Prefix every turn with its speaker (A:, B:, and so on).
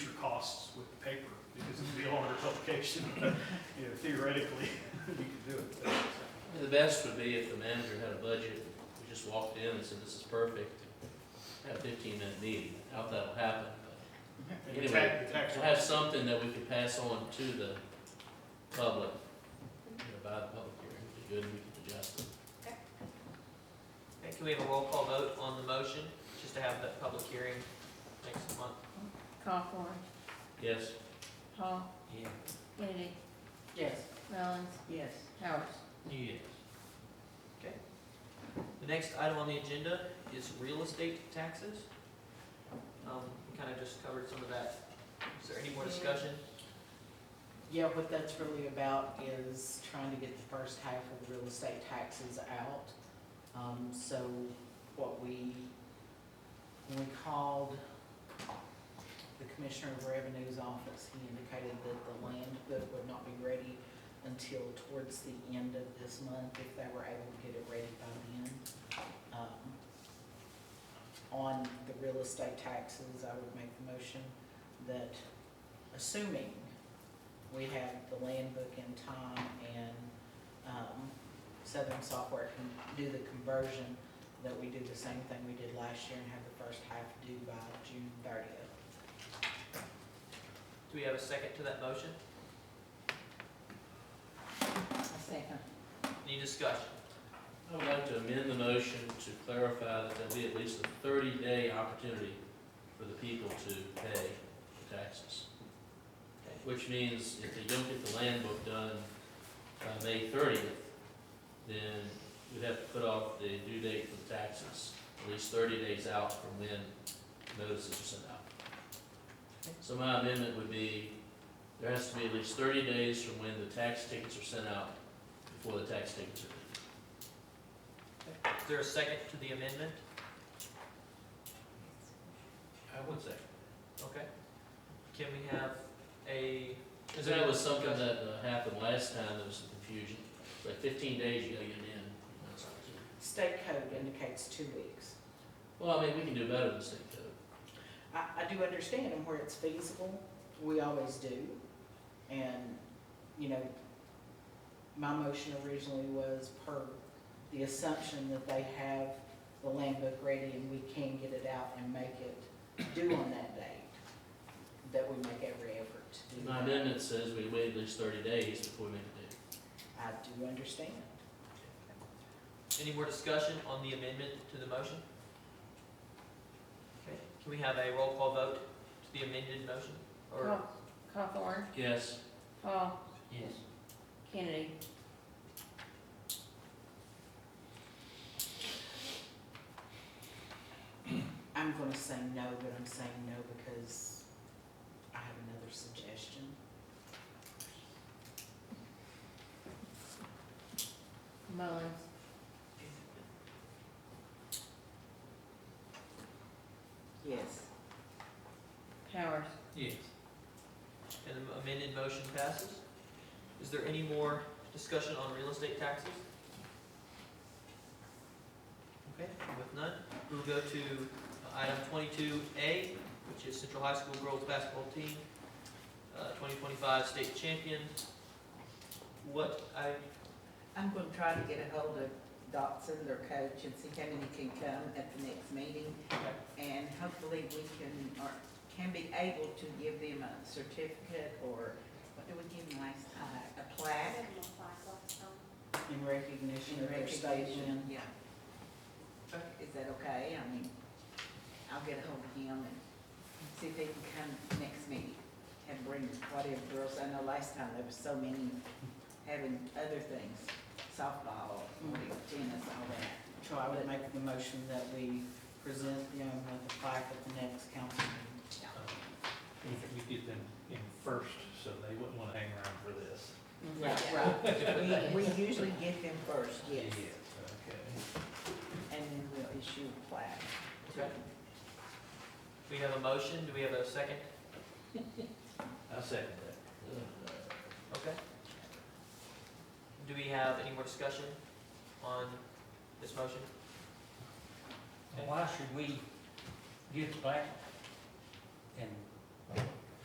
A: application, you know, theoretically, you could do it.
B: The best would be if the manager had a budget, we just walked in and said, this is perfect, had a fifteen minute meeting, I doubt that'll happen,
A: And the tax- the
B: but
A: tax
B: we'll have something that we can pass on to the public, you know, by the public hearing, it'd be good, and we can adjust it.
C: Okay, Can we have a roll call vote on the motion, just to have the public hearing next month?
D: Hawthorne,
B: Yes,
D: Hall,
C: Yeah.
D: Kennedy,
E: Yes.
D: Mullins,
E: Yes.
D: Powers.
B: yes.
C: The next item on the agenda is real estate taxes. Um, we kind of just covered some of that. Is there any more discussion?
E: Yeah, what that's really about is trying to get the first half of real estate taxes out. Um, so what we, when we called the Commissioner of Revenue's office, he indicated that the land book would not be ready until towards the end of this month, if they were able to get it ready by then. Um, On the real estate taxes, I would make the motion that, assuming we have the land book in time and um, Southern Software can do the conversion, that we do the same thing we did last year and have the first half due by June thirtieth.
C: Do we have a second to that motion?
D: I second.
C: Any discussion?
B: I would like to amend the motion to clarify that there'll be at least a thirty day opportunity for the people to pay the taxes. Which means if they don't get the land book done by May thirtieth, then we'd have to put off the due date for the taxes, at least thirty days out from when notices are sent out. So my amendment would be, there has to be at least thirty days from when the tax tickets are sent out before the tax tickets are due.
C: Is there a second to the amendment?
B: I would say.
C: Okay. Can we have a?
B: Because that was something that uh, happened last time, there was some confusion. It's like fifteen days you gotta get it in. That's all it is.
E: State code indicates two weeks.
B: Well, I mean, we can do better than state code.
E: I, I do understand and where it's feasible, we always do. And, you know, my motion originally was per the assumption that they have the land book ready and we can get it out and make it due on that date, that we make every effort to do
B: My
E: that.
B: amendment says we wait at least thirty days before we make a date.
E: I do understand.
C: Any more discussion on the amendment to the motion? Okay, can we have a roll call vote to the amended motion? Or
D: Haw- Hawthorne,
B: Yes,
D: Hall,
C: Yes.
D: Kennedy,
E: I'm gonna say no, but I'm saying no because I have another suggestion.
D: Mullins,
E: Yes.
D: Powers.
B: yes.
C: And the amended motion passes. Is there any more discussion on real estate taxes? Okay, with none, we'll go to item twenty-two A, which is Central High School Girls Basketball Team, uh, twenty twenty-five state champion. What, I,
F: I'm gonna try to get a hold of Dotson, their coach, and see how many can come at the next meeting. And hopefully we can, or can be able to give them a certificate or, what did we give them last time? A plaque?
E: In recognition
F: in
E: of their state
F: recognition. Yeah.
C: Okay.
F: Is that okay? I mean, I'll get a hold of him and see if they can come next meeting and bring whatever girls. I know last time there was so many having other things, softball, tennis, all that.
E: So I would make the motion that we present them with the plaque at the next council meeting.
G: We we did them in first, so they wouldn't want to hang around for this.
F: Right. We, we usually get them first, yes,
G: Okay.
F: and then we'll issue a plaque.
C: okay, we have a motion, do we have a second?
G: I second that.
C: Okay. Do we have any more discussion on this motion?
H: And why should we give back and